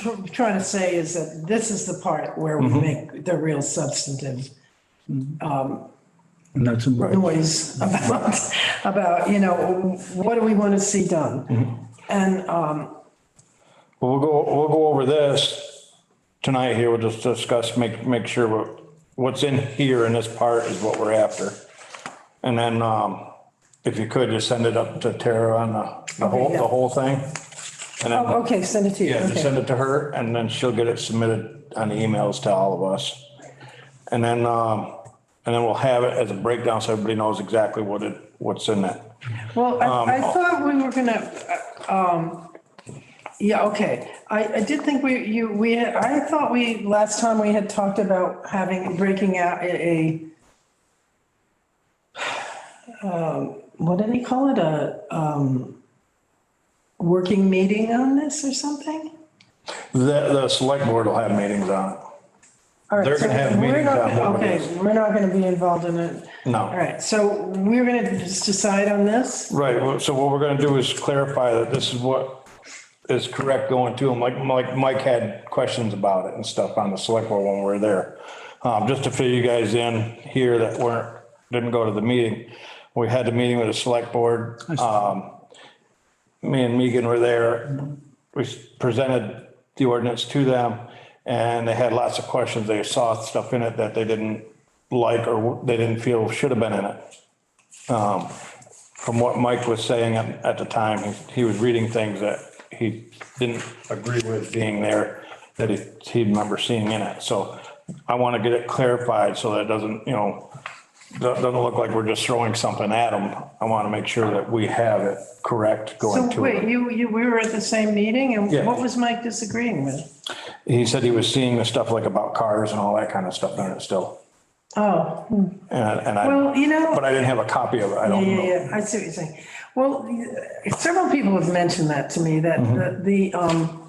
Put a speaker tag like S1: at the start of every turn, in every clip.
S1: tr- trying to say is that this is the part where we make the real substantive
S2: And that's in right.
S1: noise about, about, you know, what do we want to see done? And, um,
S3: We'll go, we'll go over this tonight here. We'll just discuss, make, make sure what, what's in here in this part is what we're after. And then, um, if you could, just send it up to Tara on the, the whole, the whole thing. And then,
S1: oh, okay, send it to you.
S3: yeah, just
S1: Okay.
S3: send it to her and then she'll get it submitted on emails to all of us. And then, um, and then we'll have it as a breakdown so everybody knows exactly what it, what's in it.
S1: Well,
S3: Um,
S1: I, I thought we were gonna, uh, um, yeah, okay. I, I did think we, you, we, I thought we, last time we had talked about having, breaking out a, a, um, what do they call it? A, um, working meeting on this or something?
S3: The, the select board will have meetings on it.
S1: All right,
S3: They're
S1: so
S3: gonna have
S1: we're
S3: meetings
S1: not-
S3: on what it
S1: Okay,
S3: is.
S1: we're not gonna be involved in it.
S3: No.
S1: All right, so we're gonna just decide on this?
S3: Right, well, so what we're gonna do is clarify that this is what is correct going to them, like, like Mike had questions about it and stuff on the select board when we were there. Um, just to fill you guys in here that weren't, didn't go to the meeting, we had the meeting with the select board. Um, me and Megan were there, we presented the ordinance to them and they had lots of questions, they saw stuff in it that they didn't like or they didn't feel should have been in it Um, from what Mike was saying at, at the time, he, he was reading things that he didn't agree with being there, that he, he remember seeing in it. So I want to get it clarified so that it doesn't, you know, do- doesn't look like we're just throwing something at him. I want to make sure that we have it correct
S1: So
S3: going to
S1: wait,
S3: it.
S1: you, you, we were at the same meeting and
S3: Yeah.
S1: what was Mike disagreeing with?
S3: He said he was seeing the stuff like about cars and all that kind of stuff in it still.
S1: Oh,
S3: And, and
S1: well,
S3: I,
S1: you know.
S3: but I didn't have a copy of it. I don't
S1: Yeah,
S3: know.
S1: yeah, yeah, I see what you're saying. Well, several people have mentioned that to me, that
S3: Mm-hmm.
S1: the- the, um,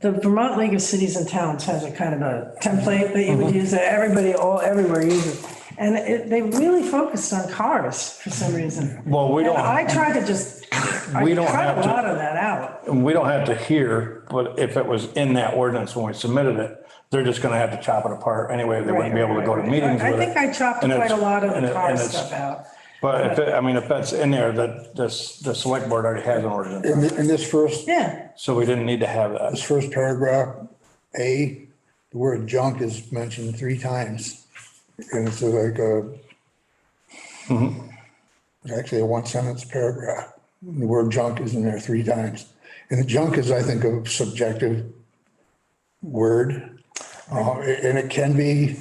S1: the Vermont League of Cities and Towns has a kind of a template that you would
S3: Mm-hmm.
S1: use, that everybody, all, everywhere uses. And it, they really focused on cars for some reason.
S3: Well, we
S1: And
S3: don't.
S1: I tried to just, I
S3: We don't
S1: cut a
S3: have to-
S1: lot of that out.
S3: And we don't have to hear, but if it was in that ordinance when we submitted it, they're just gonna have to chop it apart anyway. They wouldn't be able to go to meetings
S1: I
S3: with
S1: think
S3: it.
S1: I chopped
S3: And
S1: quite a
S3: it's-
S1: lot of
S3: and
S1: the
S3: it-
S1: car
S3: and it's-
S1: stuff out.
S3: But if, it- I mean, if that's in there, that, this, the select board already has an ordinance,
S4: In, thi- in this first,
S1: Yeah,
S3: so we didn't need to have that.
S4: this first paragraph, A, the word junk is mentioned three times. And it's like a, it's actually a one sentence paragraph. The word junk is in there three times. And the junk is, I think, a subjective word. Uh, and it can be,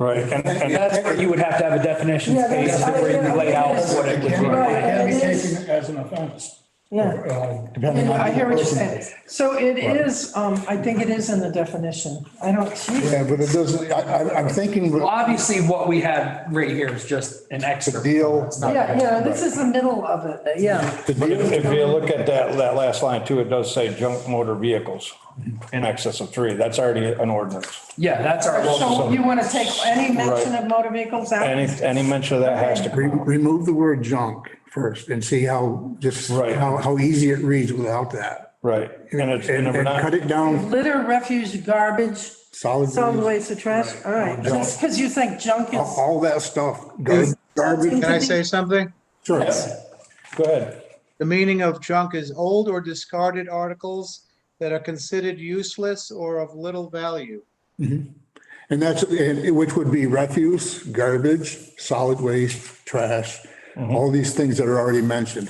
S3: Right, and, and
S5: That's where you would have to have a definition
S1: Yeah,
S5: page
S1: that's-
S5: where you lay out what it would be.
S1: Right,
S6: It can be
S1: it is.
S6: taken as an offense.
S1: yeah.
S6: Uh,
S4: depending on.
S1: I hear what you're
S4: the person.
S1: saying. So it is, um, I think it is in the definition. I don't see.
S4: Yeah, but it doesn't, I, I- I'm thinking,
S5: Well,
S4: but
S5: Obviously, what we have right here is just an excerpt.
S4: Deal.
S5: It's not-
S1: Yeah, yeah, this is the middle of it, yeah.
S3: but if if you look at that, that last line too, it does say junk motor vehicles in excess of three. That's already an ordinance.
S5: Yeah, that's our, well,
S1: So you want to take any mention of motor vehicles
S3: Any,
S1: out?
S3: any mention of that has to.
S4: re- remove the word junk first and see how, just
S3: Right.
S4: how, how easy it reads without that.
S3: Right, and it's, and
S4: And,
S3: we're
S4: and
S3: not.
S4: cut it down
S1: Litter, refuse, garbage,
S4: solid.
S1: solid
S4: waste,
S1: waste or trash, all right. Just because you think junk
S4: All
S1: is,
S4: all that stuff, gar-
S1: Is-
S4: garbage.
S7: Can I say something?
S4: Sure.
S3: Go ahead.
S7: The meaning of junk is old or discarded articles that are considered useless or of little value.
S4: And that's, and it- which would be refuse, garbage, solid waste, trash, all these things that are already mentioned.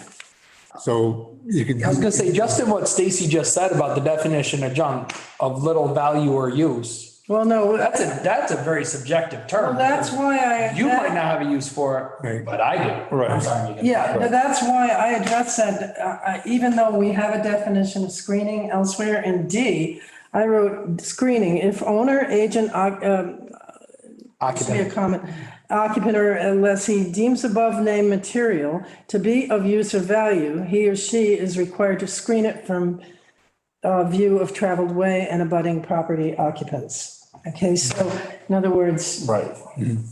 S4: So you could.
S5: I was gonna say, just in what Stacy just said about the definition of junk of little value or use,
S1: well, no,
S5: that's a, that's a very subjecective term.
S1: that's why I.
S5: You might not have a use for it,
S4: Right.
S5: but I do.
S3: Right.
S5: I'm sorry, Megan.
S1: Yeah, no, that's why I addressed that, uh, uh, even though we have a definition of screening elsewhere in D, I wrote screening, if owner, agent, oc- um, should be a
S5: Occupant.
S1: comment, occupant or unless he deems above named material to be of use or value, he or she is required to screen it from uh, view of traveled way and abutting property occupants. Okay, so in other words,
S3: Right.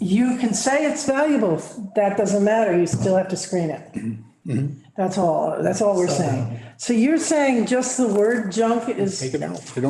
S1: you can say it's valuable, Mm-hmm. that doesn't matter, you still have to screen it. That's all, that's all we're saying.
S8: So you're saying just the word junk is
S1: Take it out.